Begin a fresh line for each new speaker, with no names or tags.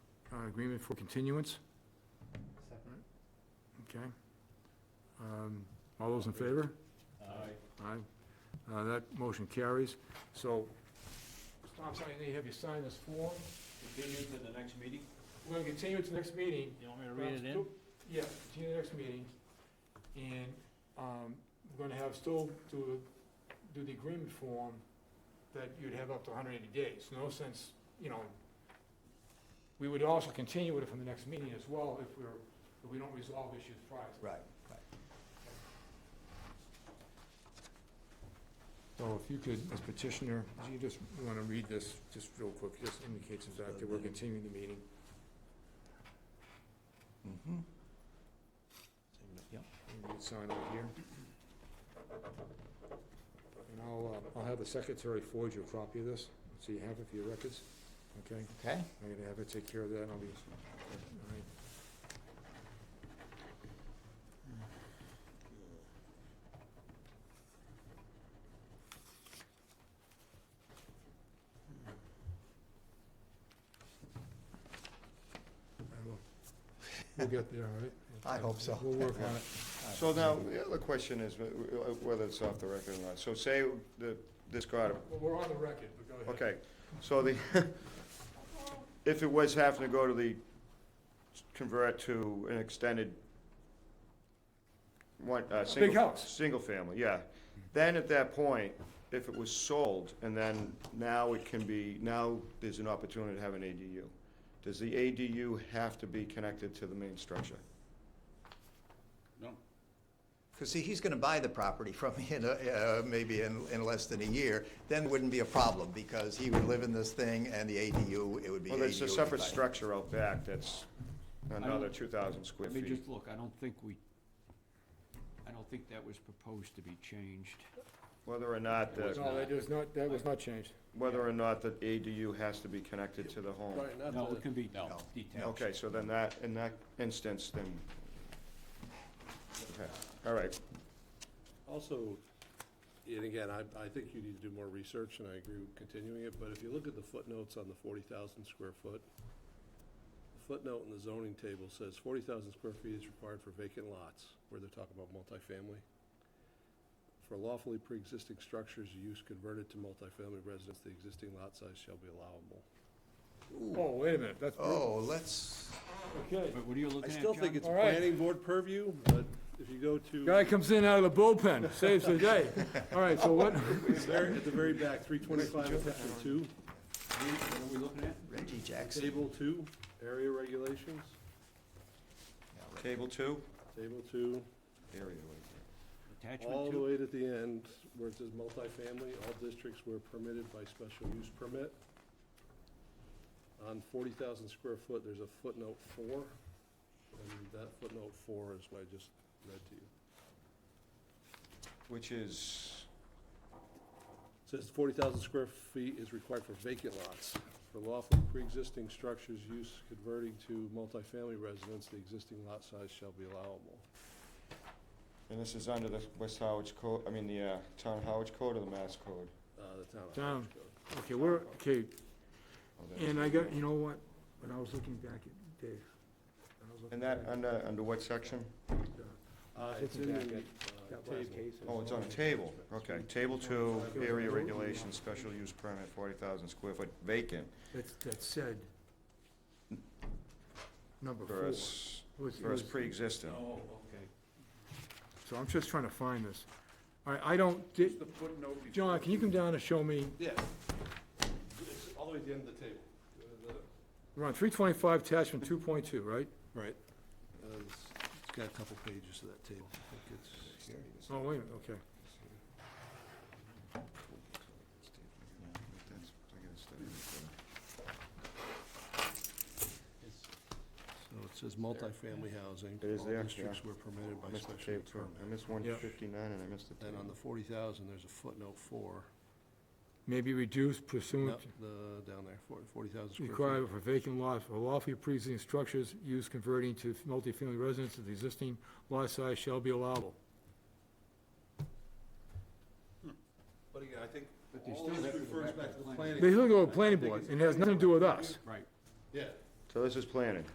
uh, agreement for continuance,
Second.
okay? Um, All those in favor?
Aye.
Aye. Uh, That motion carries. So, Tom, so I need to have you sign this form.
Continue to the next meeting?
We're going to continue it to the next meeting.
You want me to read it in?
Yeah, continue the next meeting. And um, we're going to have still to do the agreement form that you'd have up to 180 days. No sense, you know, we would also continue it from the next meeting as well if we're, if we don't resolve issues prior to.
Right, right.
So if you could, as petitioner, do you just want to read this, just real quick, just indicates the fact that we're continuing the meeting?
Mm-hmm. Yep.
And you can sign right here. And I'll, uh, I'll have the secretary forge you a copy of this, so you have it for your records, okay?
Okay.
I'm gonna have her take care of that, and I'll be, all right. I will. We'll get there, all right?
I hope so.
We'll work on it.
So now, the other question is uh, wh- wh- whether it's off the record or not. So say the, this got,
Well, We're on the record, but go ahead.
okay, so the, if it was having to go to the, convert to an extended, one, uh, single.
house.
Single family, yeah. Then at that point, if it was sold, and then now it can be, now there's an opportunity to have an ADU. Does the ADU have to be connected to the main structure?
Because see, he's going to buy the property from me in, a- uh, maybe in, in less than a year, then it wouldn't be a problem, because he would live in this thing and the ADU, it would be ADU.
Well, there's a
if he
separate
buy it.
structure out back that's another two thousand square
Let me
feet.
just look, I don't think we, I don't think that was proposed to be changed.
Whether or not the,
No, that is not, that was not changed.
whether or not the ADU has to be connected to the home.
No, it can be
No.
detached.
Okay, so then that, in that instance, then, okay, all right.
Also, and again, I, I think you need to do more research, and I agree with continuing it, but if you look at the footnotes on the forty thousand square foot, the footnote in the zoning table says forty thousand square feet is required for vacant lots, where they're talking about multifamily. For lawfully pre-existing structures, use converted to multifamily residence, the existing lot size shall be allowable.
Oh, wait a minute, that's,
Oh, let's,
okay.
But what are you
I
looking at,
still think
John?
it's
All right.
planning board purview, but if you go to.
Guy comes in out of the bullpen, saves the day. All right, so what,
There, at the very back, three twenty-five, section two,
What are we looking at?
Reggie Jackson.
table two, area regulations,
Yeah, Reggie.
Table two?
table two,
Area right
Attachment
all the
two?
way to the end, where it says multifamily, all districts were permitted by special use permit. On forty thousand square foot, there's a footnote four, and that footnote four is what I just read to you.
Which is,
Says forty thousand square feet is required for vacant lots. For lawfully pre-existing structures use converting to multifamily residence, the existing lot size shall be allowable.
and this is under the West Howard's code, I mean, the uh, Town Howard's code or the Mass code?
Uh, the town. of
Town.
Orange Code.
okay, we're, okay,
Oh, that's-
and I got, you know what, when I was looking back at Dave. when I was looking
And that,
back at
under, under what section?
Uh,
It's
it's in
in
the,
that-
uh,
that last
table.
case. uh,
Oh, it's on a table, okay. Table two, area regulations, special use permit, forty thousand square foot vacant.
That's, that said, number four.
For us,
It was- it
for us
was-
pre-existing.
Oh, okay.
So I'm just trying to find this. All right, I don't, di-
The footnote. before-
John, can you come down and show me,
Yeah. It's all the way at the end of the table. Uh,
we're on three twenty-five attachment two point two, right?
the- Uh, It's it's got a couple pages to that table. I think it's here.
Oh, wait a minute, okay.
So it says multifamily housing.
It is there,
All districts
yeah.
were permitted
I
by
missed the
special
tape, too. I
permit.
missed one fifty-nine and I missed the
Then on
table.
the forty thousand, there's a footnote four,
Maybe reduce
No,
pursuant
the, down there, forty, forty thousand square feet.
requirement for vacant lots for lawfully pre-existing structures used converting to multifamily residences, the existing lot size shall be allowable.
But again, I think
But they all still this have to go refers back to back to the the planning.
They still go to the planning board, and it has nothing to do with us.
Right.
Yeah.
So this is planning.